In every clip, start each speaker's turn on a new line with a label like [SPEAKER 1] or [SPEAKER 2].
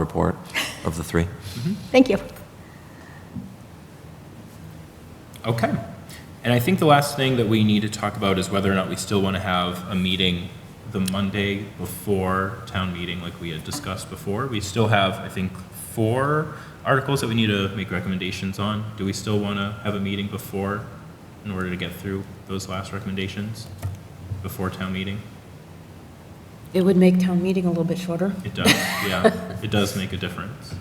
[SPEAKER 1] report of the three?
[SPEAKER 2] Thank you.
[SPEAKER 3] Okay. And I think the last thing that we need to talk about is whether or not we still want to have a meeting the Monday before town meeting, like we had discussed before. We still have, I think, four articles that we need to make recommendations on. Do we still want to have a meeting before, in order to get through those last recommendations before town meeting?
[SPEAKER 4] It would make town meeting a little bit shorter.
[SPEAKER 3] It does, yeah. It does make a difference.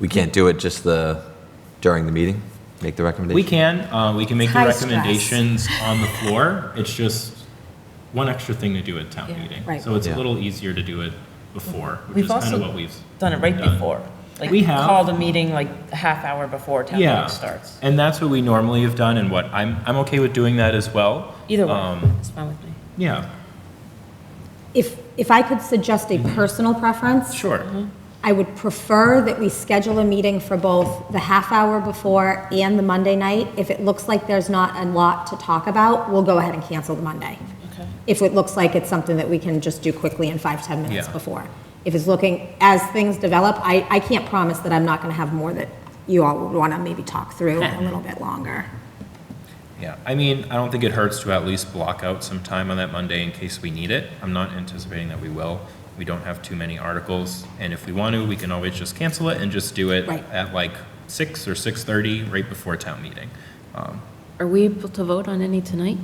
[SPEAKER 1] We can't do it just the, during the meeting, make the recommendation?
[SPEAKER 3] We can, uh, we can make the
[SPEAKER 2] High stress.
[SPEAKER 3] recommendations on the floor. It's just one extra thing to do at town
[SPEAKER 4] Yeah,
[SPEAKER 3] meeting.
[SPEAKER 4] right.
[SPEAKER 3] So it's a
[SPEAKER 1] Yeah.
[SPEAKER 3] little easier to do it before, which
[SPEAKER 5] We've
[SPEAKER 3] is kind
[SPEAKER 5] also
[SPEAKER 3] of what we've.
[SPEAKER 5] done it right
[SPEAKER 3] done.
[SPEAKER 5] before. Like,
[SPEAKER 3] We have.
[SPEAKER 5] Called a meeting like a half hour before town
[SPEAKER 3] Yeah.
[SPEAKER 5] meeting starts.
[SPEAKER 3] And that's what we normally have done and what, I'm, I'm okay with doing that as well.
[SPEAKER 5] Either way,
[SPEAKER 3] Um,
[SPEAKER 5] it's fine with me.
[SPEAKER 3] Yeah,
[SPEAKER 2] If, if I could suggest a personal preference,
[SPEAKER 5] Mm-hmm.
[SPEAKER 3] sure.
[SPEAKER 2] I would prefer that we schedule a meeting for both the half hour before and the Monday night. If it looks like there's not a lot to talk about, we'll go ahead and cancel the Monday.
[SPEAKER 5] Okay.
[SPEAKER 2] If it looks like it's something that we can just do quickly in five ten minutes
[SPEAKER 3] Yeah.
[SPEAKER 2] before. If it's looking, as things develop, I, I can't promise that I'm not going to have more that you all would want to maybe talk through a little bit longer.
[SPEAKER 3] Yeah, I mean, I don't think it hurts to at least block out some time on that Monday in case we need it. I'm not anticipating that we will. We don't have too many articles, and if we want to, we can always just cancel it and just do it
[SPEAKER 2] Right.
[SPEAKER 3] at like six or six thirty, right before town meeting. Um,
[SPEAKER 4] Are we able to vote on any tonight?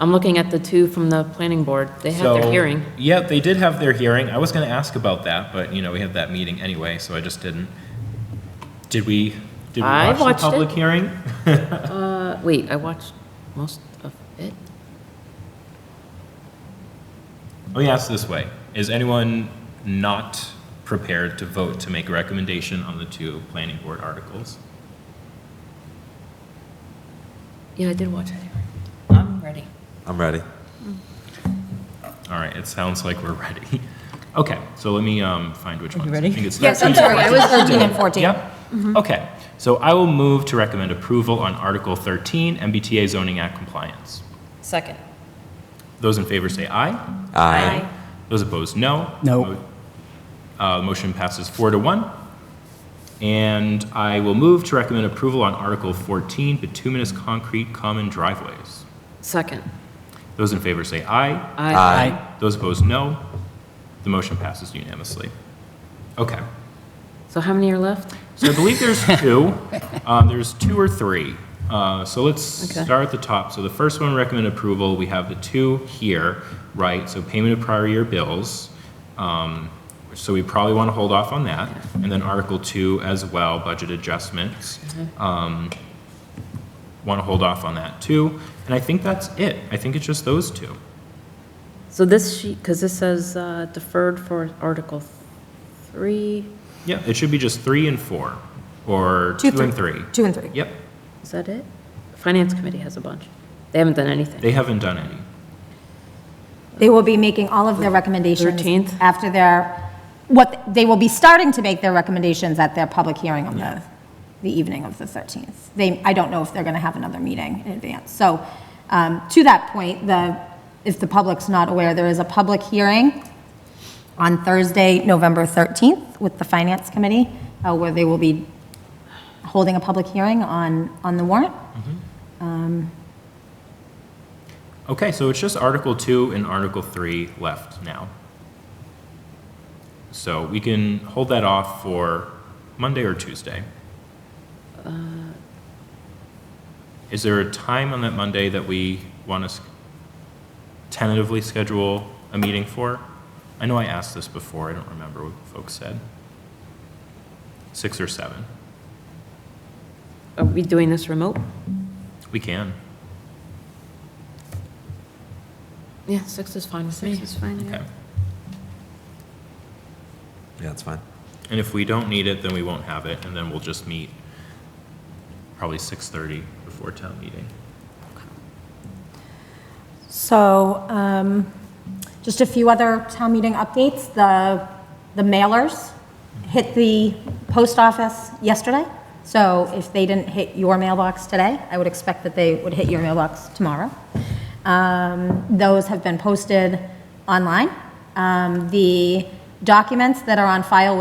[SPEAKER 4] I'm looking at the two from the planning board. They had
[SPEAKER 3] so-
[SPEAKER 4] their hearing.
[SPEAKER 3] Yeah, they did have their hearing. I was going to ask about that, but you know, we had that meeting anyway, so I just didn't. Did we? Did we
[SPEAKER 4] I
[SPEAKER 3] watch
[SPEAKER 4] watched it.
[SPEAKER 3] the public hearing?
[SPEAKER 4] Uh, Wait, I watched most of it.
[SPEAKER 3] Let me ask this way. Is anyone not prepared to vote to make a recommendation on the two planning board articles?
[SPEAKER 4] Yeah, I did watch it.
[SPEAKER 5] I'm ready.
[SPEAKER 1] I'm ready.
[SPEAKER 3] All right, it sounds like we're ready. Okay, so let me um, find which
[SPEAKER 5] Are you
[SPEAKER 3] ones. I
[SPEAKER 5] ready?
[SPEAKER 3] think it's-
[SPEAKER 2] Yes, I'm sorry, I was 13 and Mm-hmm. 14.
[SPEAKER 3] Yep. Okay, so I will move to recommend approval on Article 13, MBTA Zoning Act Compliance.
[SPEAKER 5] Second.
[SPEAKER 3] Those in favor say aye.
[SPEAKER 1] Aye.
[SPEAKER 3] Those opposed, no.
[SPEAKER 6] No.
[SPEAKER 3] Uh, Motion passes four to one. And I will move to recommend approval on Article 14, bituminous concrete common driveways.
[SPEAKER 4] Second.
[SPEAKER 3] Those in favor say aye.
[SPEAKER 4] Aye.
[SPEAKER 3] Those opposed, no. The motion passes unanimously. Okay.
[SPEAKER 4] So how many are left?
[SPEAKER 3] So I believe there's two. Uh, There's two or three. Uh, So let's
[SPEAKER 4] Okay.
[SPEAKER 3] start at the top. So the first one, recommend approval. We have the two here, right? So payment of prior year bills. Um, So we probably want to hold off on that. And then Article 2 as well, budget adjustments. Want to hold off on that too. And I think that's it. I think it's just those two.
[SPEAKER 4] So this sheet, because this says uh, deferred for Article 3,
[SPEAKER 3] Yeah, it should be just 3 and 4, or 2 and 3.
[SPEAKER 2] Two and three.
[SPEAKER 3] Yep,
[SPEAKER 4] is that it? Finance Committee has a bunch. They haven't done anything.
[SPEAKER 3] they haven't done any.
[SPEAKER 2] They will be making all of their recommendations.
[SPEAKER 4] 13th?
[SPEAKER 2] After their, what, they will be starting to make their recommendations at their public hearing on the, the evening of the 13th. They, I don't know if they're going to have another meeting in advance. So um, to that point, the, if the public's not aware, there is a public hearing on Thursday, November 13th with the Finance Committee, uh, where they will be holding a public hearing on, on the warrant.
[SPEAKER 3] Okay, so it's just Article 2 and Article 3 left now. So we can hold that off for Monday or Tuesday. Is there a time on that Monday that we want to tentatively schedule a meeting for? I know I asked this before, I don't remember what folks said. 6 or 7?
[SPEAKER 4] Are we doing this remote?
[SPEAKER 3] We can.
[SPEAKER 4] Yeah, 6 is fine with me. 6 is fine,
[SPEAKER 3] Okay.
[SPEAKER 1] Yeah, that's fine.
[SPEAKER 3] And if we don't need it, then we won't have it, and then we'll just meet probably six thirty before town meeting.
[SPEAKER 2] So, um, just a few other town meeting updates. The, the mailers hit the post office yesterday. So if they didn't hit your mailbox today, I would expect that they would hit your mailbox tomorrow. Um, Those have been posted online. Um, The documents that are on file with